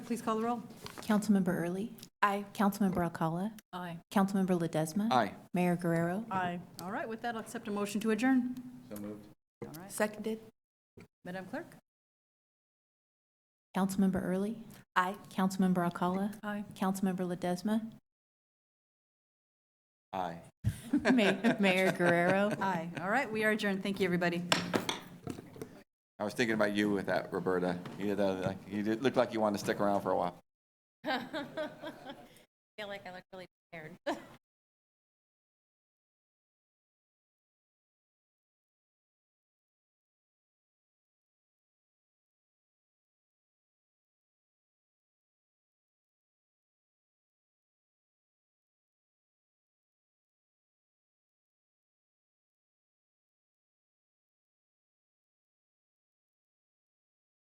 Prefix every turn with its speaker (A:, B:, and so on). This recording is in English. A: please call the roll?
B: Councilmember Early.
C: Aye.
B: Councilmember Alcala.
A: Aye.
B: Councilmember Ledesma.
D: Aye.
B: Mayor Guerrero.
A: Aye. All right, with that, I'll accept a motion to adjourn.
C: Seconded?
A: Madam Clerk?
B: Councilmember Early.
C: Aye.
B: Councilmember Alcala.
A: Aye.
B: Councilmember Ledesma.
D: Aye.
B: Ma- Mayor Guerrero.
A: Aye. All right, we are adjourned. Thank you, everybody.
D: I was thinking about you with that, Roberta. You did, uh, like- you did, looked like you wanted to stick around for a while.
E: feel like I look really prepared.